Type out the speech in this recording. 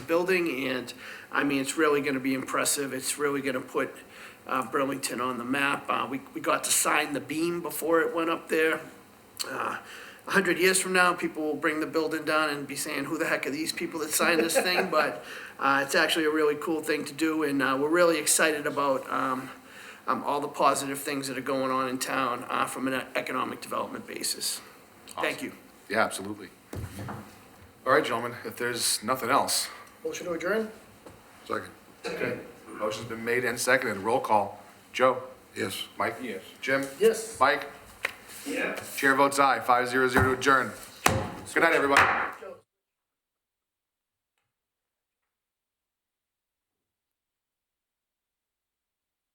building, and, I mean, it's really gonna be impressive, it's really gonna put, uh, Burlington on the map. Uh, we, we got to sign the beam before it went up there. Uh, A hundred years from now, people will bring the building down and be saying, who the heck are these people that signed this thing? But, uh, it's actually a really cool thing to do, and, uh, we're really excited about, um, um, all the positive things that are going on in town, uh, from an economic development basis. Thank you. Yeah, absolutely. All right, gentlemen, if there's nothing else. Motion to adjourn? Second, Okay. Motion's been made and seconded. Roll call. Joe? yes. Mike? Yes. Jim? Yes. Mike? Yes. Chair votes aye, five zero zero to adjourn. Good night, everybody.